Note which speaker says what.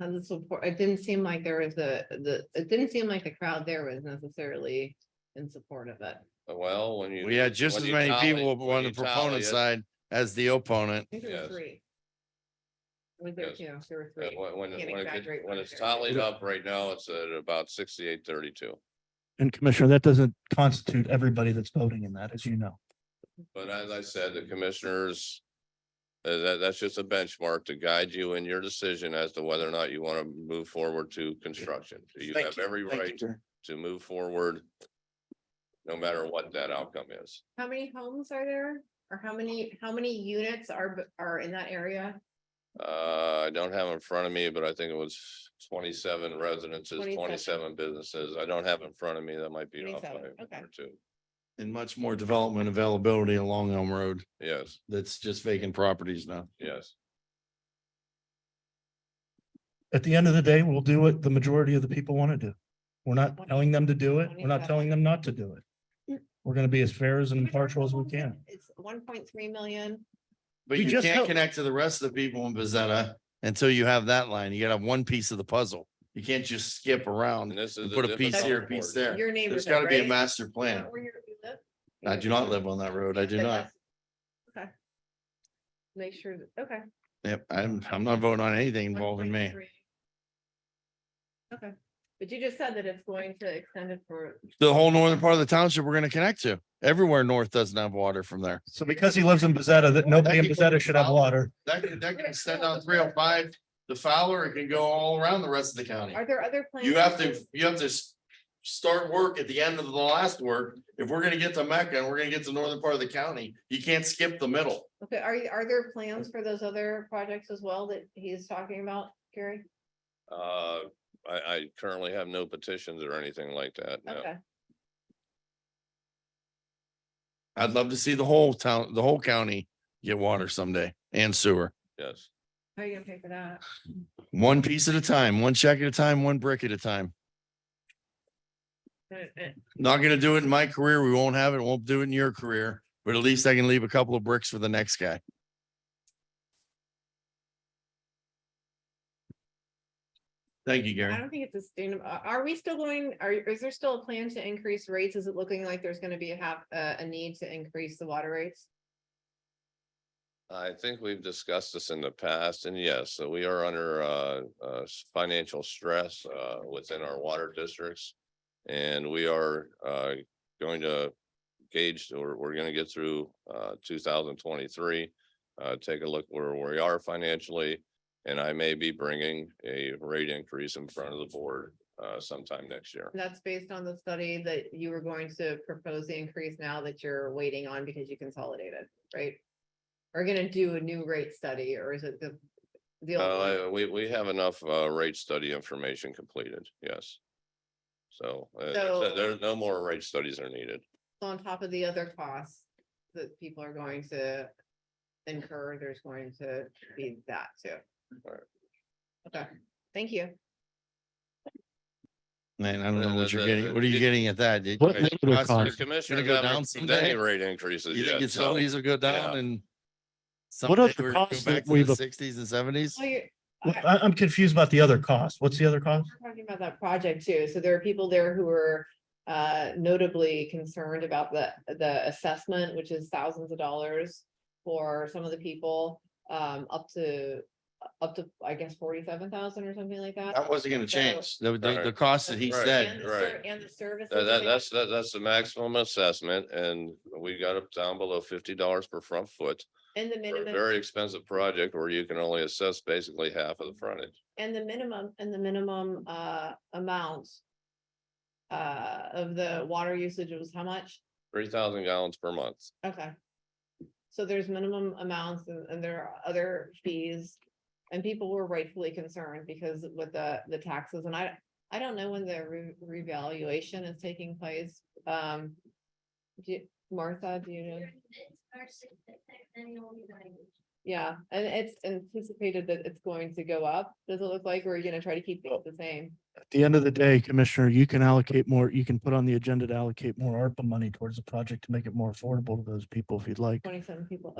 Speaker 1: Tons of support. It didn't seem like there was a, the, it didn't seem like the crowd there was necessarily in support of it.
Speaker 2: Uh, Well, when you.
Speaker 3: We had just
Speaker 2: when
Speaker 3: as
Speaker 2: you
Speaker 3: many
Speaker 2: tally-
Speaker 3: people
Speaker 2: when
Speaker 3: on
Speaker 2: you
Speaker 3: the proponent
Speaker 2: tally
Speaker 3: side as the opponent.
Speaker 1: I think there
Speaker 2: Yes.
Speaker 1: were three. Was there
Speaker 2: Yes.
Speaker 1: two? There were
Speaker 2: it, uh,
Speaker 1: three.
Speaker 2: When, when it-
Speaker 1: Can't
Speaker 2: when it
Speaker 1: exaggerate
Speaker 2: gets-
Speaker 1: what
Speaker 2: when
Speaker 1: it
Speaker 2: it's
Speaker 1: is.
Speaker 2: tallied up right now, it's at about sixty-eight thirty-two.
Speaker 4: And Commissioner, that doesn't constitute everybody that's voting in that, as you know.
Speaker 2: But as I said, the commissioners, uh, that, that's just a benchmark to guide you in your decision as to whether or not you want to move forward to construction. So You have every right to move forward, no matter what that outcome is.
Speaker 1: How many homes are there? Or how many, how many units are, b- are in that area?
Speaker 2: Uh, I don't have in front of me, but I think it was twenty-seven residences,
Speaker 1: 27.
Speaker 2: twenty-seven businesses. I don't have in front of me. That might be off by
Speaker 1: 27,
Speaker 2: one
Speaker 1: okay.
Speaker 2: or two.
Speaker 3: And much more development availability along Elm Road.
Speaker 2: Yes,
Speaker 3: That's just vacant properties now.
Speaker 2: yes.
Speaker 4: At the end of the day, we'll do what the majority of the people want to do. We're not telling them to do it. We're not telling them not to do it. We're going to be as fair as impartial as we can.
Speaker 1: It's one point three million.
Speaker 3: But
Speaker 4: We
Speaker 3: you
Speaker 4: just
Speaker 3: can't
Speaker 4: help-
Speaker 3: connect to the rest of the people in Bezetta until you have that line. You gotta have one piece of the puzzle. You can't just skip
Speaker 2: And
Speaker 3: around.
Speaker 2: this
Speaker 3: You
Speaker 2: is. the
Speaker 3: Um, put a piece
Speaker 2: difficult
Speaker 3: here, a piece
Speaker 2: part.
Speaker 3: there.
Speaker 1: Your neighborhood,
Speaker 3: There's gotta be a
Speaker 1: right?
Speaker 3: master
Speaker 1: Is
Speaker 3: plan.
Speaker 1: that where you're- you live?
Speaker 3: I do not live on that road. I do
Speaker 1: But
Speaker 3: not.
Speaker 1: that's- Okay. Make sure, that- okay.
Speaker 3: Yep, I'm, I'm not voting on anything involving me.
Speaker 1: 1.3. Okay, but you just said that it's going to extend it for,
Speaker 3: The whole northern part of the township we're gonna connect to. Everywhere north doesn't have water from there.
Speaker 4: So because he lives in Bezetta, that nobody in Bezetta should have water.
Speaker 3: That can, that can extend down three oh five to Fowler. It can go all around the rest of the county.
Speaker 1: are there other plans?
Speaker 3: You have to, you have to s- start work at the end of the last work. If we're gonna get to Mecca and we're gonna get to northern part of the county, you can't skip the middle.
Speaker 1: Okay, are you, are there plans for those other projects as well that he's talking about, Gary?
Speaker 2: Uh, I, I currently have no petitions or anything like that. no.
Speaker 1: Okay,
Speaker 3: I'd love to see the whole town, the whole county get water someday and sewer.
Speaker 2: Yes,
Speaker 1: how are you gonna pay for that?
Speaker 3: One piece at a time, one check at a time, one brick at a time.
Speaker 1: Uh, uh,
Speaker 3: Not gonna do it in my career. We won't have it. Won't do it in your career, but at least I can leave a couple of bricks for the next guy. Thank you,
Speaker 1: I
Speaker 3: Gary.
Speaker 1: don't think it's a sustainable, are, are we still going, are, is there still a plan to increase rates? Is it looking like there's gonna be a half, uh, a need to increase the water rates?
Speaker 2: I think we've discussed this in the past and yes, so we are under uh, uh, s- financial stress uh, within our water districts. And we are uh, going to gauge, or we're going to get through uh, two thousand twenty-three. Uh, take a look where we are financially, and I may be bringing a rate increase in front of the board uh, sometime next year.
Speaker 1: That's based on the study that you were going to propose the increase now that you're waiting on because you consolidated, right? Are gonna do a new rate study or is it the? the old one?
Speaker 2: Uh, we, we have enough, uh, rate study information completed, yes. So, uh,
Speaker 1: So-
Speaker 2: there's no more rate studies are needed.
Speaker 1: On top of the other costs that people are going to incur, there's going to be that too.
Speaker 2: Right.
Speaker 1: Okay, thank you.
Speaker 3: Man, I don't know what you're getting. What are
Speaker 2: You-
Speaker 3: you getting at that? Did-
Speaker 4: What
Speaker 3: Okay,
Speaker 4: negative
Speaker 3: cost-
Speaker 2: The
Speaker 4: cost? Ours.
Speaker 2: commissioners
Speaker 3: go down
Speaker 2: haven't approved any
Speaker 3: someday?
Speaker 2: rate
Speaker 3: You
Speaker 2: increases
Speaker 3: think
Speaker 2: yet, so,
Speaker 3: utilities will go down
Speaker 2: yeah.
Speaker 3: and?
Speaker 4: What are
Speaker 3: someday
Speaker 4: the
Speaker 3: we're gonna go
Speaker 4: costs
Speaker 3: back
Speaker 4: that
Speaker 3: to the
Speaker 4: we've-
Speaker 3: Sixties and seventies?
Speaker 1: Well, you're
Speaker 4: I, I'm confused about the other cost. What's the other cost?
Speaker 1: talking about that project too, so there are people there who are uh notably concerned about the the assessment, which is thousands of dollars. For some of the people, um up to, up to, I guess, forty seven thousand or something like that.
Speaker 3: That wasn't gonna
Speaker 1: So-
Speaker 3: change. The, the, the
Speaker 2: Right.
Speaker 3: cost that he
Speaker 2: Right.
Speaker 1: And
Speaker 3: said,
Speaker 1: the ser-
Speaker 2: right.
Speaker 1: And the services.
Speaker 2: that, that-
Speaker 1: they-
Speaker 2: that's, that- that's the maximum assessment, and we got up down below fifty dollars per front foot.
Speaker 1: And the
Speaker 2: for a
Speaker 1: minimum.
Speaker 2: Very expensive project where you can only assess basically half of the frontage.
Speaker 1: And the minimum, and the minimum uh amount. Uh, of the water usage was how much?
Speaker 2: Three thousand gallons per month,
Speaker 1: Okay. So there's minimum amounts and and there are other fees. And people were rightfully concerned because with the the taxes and I, I don't know when the re- revaluation is taking place. Um. do you- Martha, do you know?
Speaker 5: It's our sixth annual meeting.
Speaker 1: Yeah, and it's anticipated that it's going to go up. Does it look like, or are you gonna try to keep it the same?
Speaker 4: At the end of the day, Commissioner, you can allocate more, you can put on the agenda to allocate more ARPA money towards the project to make it more affordable to those people if you'd like.
Speaker 1: Twenty-seven people,